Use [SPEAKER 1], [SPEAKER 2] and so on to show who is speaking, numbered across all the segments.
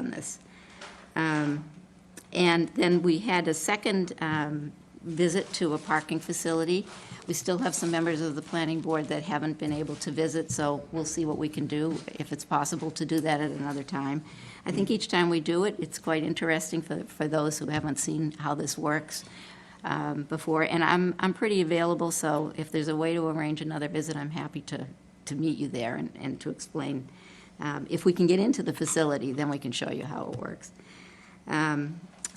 [SPEAKER 1] Thomas. Um, And then we had a second um, visit to a parking facility. We still have some members of the planning board that haven't been able to visit, so we'll see what we can do, if it's possible to do that at another time. I think each time we do it, it's quite interesting for, for those who haven't seen how this works um, before. And I'm, I'm pretty available, so if there's a way to arrange another visit, I'm happy to, to meet you there and, and to explain. Um, If we can get into the facility, then we can show you how it works. Um,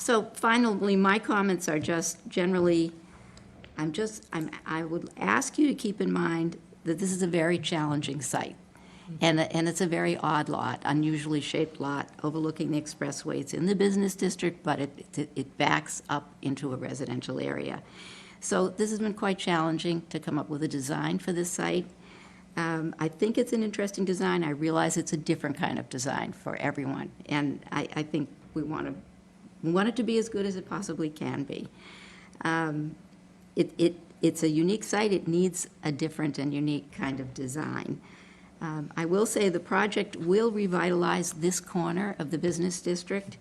[SPEAKER 1] So finally, my comments are just generally, I'm just, I'm, I would ask you to keep in mind that this is a very challenging site. And, and it's a very odd lot, unusually shaped lot overlooking the expressway. It's in the business district, but it, it- it backs up into a residential area. So this has been quite challenging to come up with a design for this site. Um, I think it's an interesting design. I realize it's a different kind of design for everyone. And I, I think we want to, we want it to be as good as it possibly can be Um, it, it, it's a unique site, it needs a different and unique kind of design. Um, I will say the project will revitalize this corner of the business district,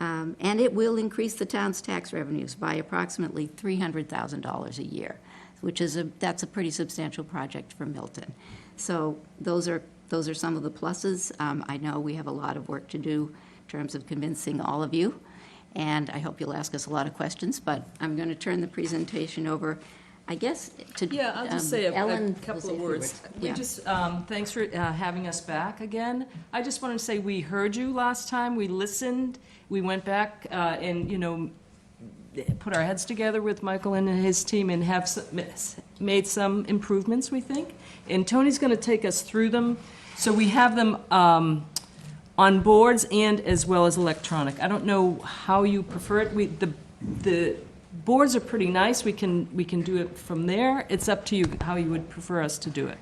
[SPEAKER 1] um, and it will increase the town's tax revenues by approximately $300,000 a year, which is a, that's a pretty substantial project for Milton. So those are, those are some of the pluses. Um, I know we have a lot of work to do in terms of convincing all of you, and I hope you'll ask us a lot of questions, but I'm going to turn the presentation over, I guess, to
[SPEAKER 2] Yeah, I'll just
[SPEAKER 1] um,
[SPEAKER 2] say a-
[SPEAKER 1] Ellen
[SPEAKER 2] a
[SPEAKER 1] will
[SPEAKER 2] couple
[SPEAKER 1] say a
[SPEAKER 2] of
[SPEAKER 1] few
[SPEAKER 2] words. We
[SPEAKER 1] Yeah.
[SPEAKER 2] just, um, thanks for uh, having us back again. I just wanted to say, we heard you last time, we listened, we went back uh, and, you know, put our heads together with Michael and his team and have some- made some improvements, we think. And Tony's going to take us through them. So we have them um, on boards and as well as electronic. I don't know how you prefer it. We, the, the boards are pretty nice. We can, we can do it from there. It's up to you how you would prefer us to do it.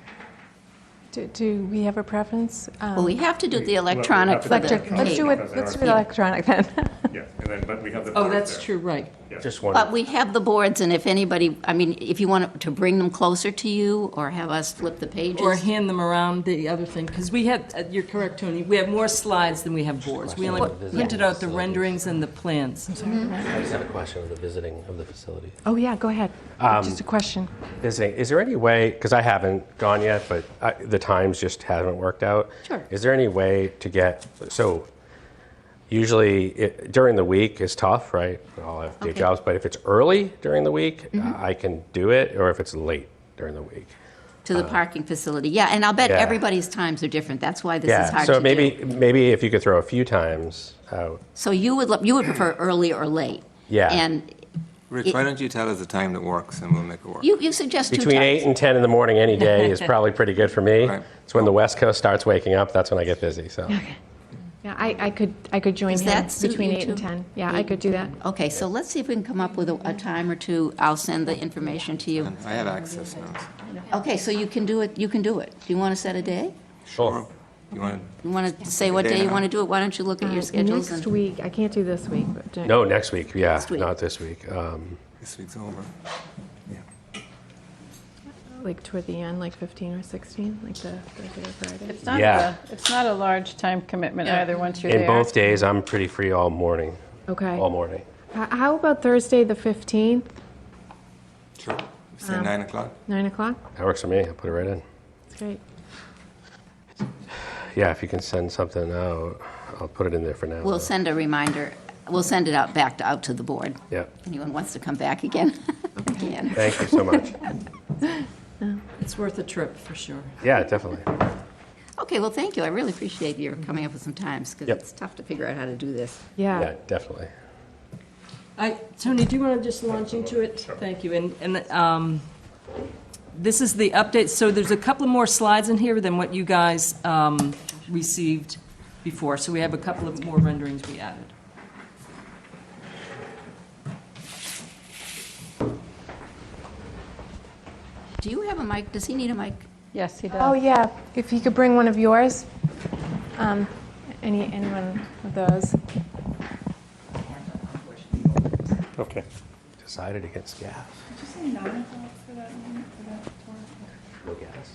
[SPEAKER 3] Do, do we have a preference? Um,
[SPEAKER 1] Well, we have to do the
[SPEAKER 4] Well, we
[SPEAKER 1] electronic
[SPEAKER 4] have to
[SPEAKER 1] for
[SPEAKER 4] do
[SPEAKER 1] the
[SPEAKER 3] electric- Let's do
[SPEAKER 1] page,
[SPEAKER 3] it,
[SPEAKER 4] Because they
[SPEAKER 3] let's
[SPEAKER 4] are-
[SPEAKER 3] do it electronic then.
[SPEAKER 4] Yeah, and then, but we have the.
[SPEAKER 2] Oh,
[SPEAKER 4] board
[SPEAKER 2] that's
[SPEAKER 4] there.
[SPEAKER 2] true, right.
[SPEAKER 4] Yeah.
[SPEAKER 5] Just one,
[SPEAKER 1] but we have the boards, and if anybody, I mean, if you want to bring them closer to you, or have us flip the pages.
[SPEAKER 2] Or hand them around, the other thing, because we had, uh, you're correct, Tony, we have more slides than we have boards. We only printed out the renderings and the plans.
[SPEAKER 5] I just had a question of the visiting of the facility.
[SPEAKER 3] Oh, yeah, go ahead. Just a question.
[SPEAKER 5] Visiting, is there any way, because I haven't gone yet, but I- the times just haven't worked out.
[SPEAKER 1] Sure.
[SPEAKER 5] Is there any way to get, so usually it- during the week is tough, right? I'll have
[SPEAKER 1] Okay.
[SPEAKER 5] day
[SPEAKER 1] Mm-hmm.
[SPEAKER 5] jobs, but if it's early during the week, I can do it, or if it's late during the week.
[SPEAKER 1] To the parking facility, yeah, and I'll bet
[SPEAKER 5] Yeah.
[SPEAKER 1] everybody's times are different, that's why this is
[SPEAKER 5] Yeah,
[SPEAKER 1] hard to
[SPEAKER 5] so
[SPEAKER 1] do.
[SPEAKER 5] maybe, maybe if you could throw a few times out.
[SPEAKER 1] So you would, lo- you would prefer early or late?
[SPEAKER 5] Yeah.
[SPEAKER 1] And
[SPEAKER 6] Rich, why don't you tell us the time that works and we'll make it work?
[SPEAKER 1] you, you suggest two times?
[SPEAKER 5] Between 8 and 10 in the morning any day is probably pretty good for me.
[SPEAKER 6] Right.
[SPEAKER 5] It's when the West Coast starts waking up, that's when I get busy, so.
[SPEAKER 3] Yeah, I, I could, I could join
[SPEAKER 1] Does
[SPEAKER 3] him
[SPEAKER 1] that suit
[SPEAKER 3] between
[SPEAKER 1] you
[SPEAKER 3] eight and
[SPEAKER 1] two?
[SPEAKER 3] 10. Yeah, I
[SPEAKER 1] Eight
[SPEAKER 3] could do that.
[SPEAKER 1] Okay, so let's see if we can come up with a, a time or two, I'll send the information to you.
[SPEAKER 6] I have access now.
[SPEAKER 1] Okay, so you can do it, you can do it. Do you want to set a day?
[SPEAKER 5] Sure.
[SPEAKER 6] You want
[SPEAKER 1] You want to say what
[SPEAKER 6] Day
[SPEAKER 1] day you
[SPEAKER 6] now.
[SPEAKER 1] want to do it? Why don't you look at your schedules?
[SPEAKER 3] Uh, Next
[SPEAKER 1] and-
[SPEAKER 3] week, I can't do this week, but.
[SPEAKER 5] No, next week, yeah,
[SPEAKER 1] week.
[SPEAKER 5] not this week. Um,
[SPEAKER 6] this week's over.
[SPEAKER 3] Like toward the end, like 15 or 16, like the Thursday or Friday.
[SPEAKER 7] It's not
[SPEAKER 5] Yeah.
[SPEAKER 7] a, it's not a large time commitment either, once you're there.
[SPEAKER 5] In both days, I'm pretty free all morning,
[SPEAKER 3] Okay.
[SPEAKER 5] all morning.
[SPEAKER 3] H- How about Thursday, the 15th,
[SPEAKER 6] Sure. Say nine o'clock?
[SPEAKER 3] 9 o'clock?
[SPEAKER 5] That works for me, I'll put it right in.
[SPEAKER 3] That's great.
[SPEAKER 5] Yeah, if you can send something out, I'll put it in there for now.
[SPEAKER 1] We'll
[SPEAKER 5] though.
[SPEAKER 1] send a reminder, we'll send it out, back to, out to the board.
[SPEAKER 5] Yeah,
[SPEAKER 1] Anyone wants to come back again? Again.
[SPEAKER 5] thank you so much.
[SPEAKER 2] It's worth a trip, for sure.
[SPEAKER 5] Yeah, definitely.
[SPEAKER 1] Okay, well, thank you. I really appreciate your coming up with some times, because
[SPEAKER 5] Yep.
[SPEAKER 1] it's tough to figure out how to do this.
[SPEAKER 5] Yeah,
[SPEAKER 3] Yeah.
[SPEAKER 5] definitely.
[SPEAKER 2] I, Tony, do you want to just launch into it? Thank you. And, and um, this is the update, so there's a couple more slides in here than what you guys um, received before, so we have a couple of more renderings we added.
[SPEAKER 1] Do you have a mic? Does he need a mic?
[SPEAKER 7] Yes, he does.
[SPEAKER 3] Oh, yeah, if you could bring one of yours. Um, Any, anyone of those?
[SPEAKER 4] Okay.
[SPEAKER 5] Decided against gas.
[SPEAKER 8] No gas.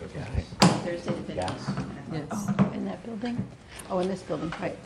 [SPEAKER 8] No gas.
[SPEAKER 2] Thursday, the
[SPEAKER 8] Gas.
[SPEAKER 9] Yes.
[SPEAKER 2] in that building?
[SPEAKER 1] Oh, in this building, right.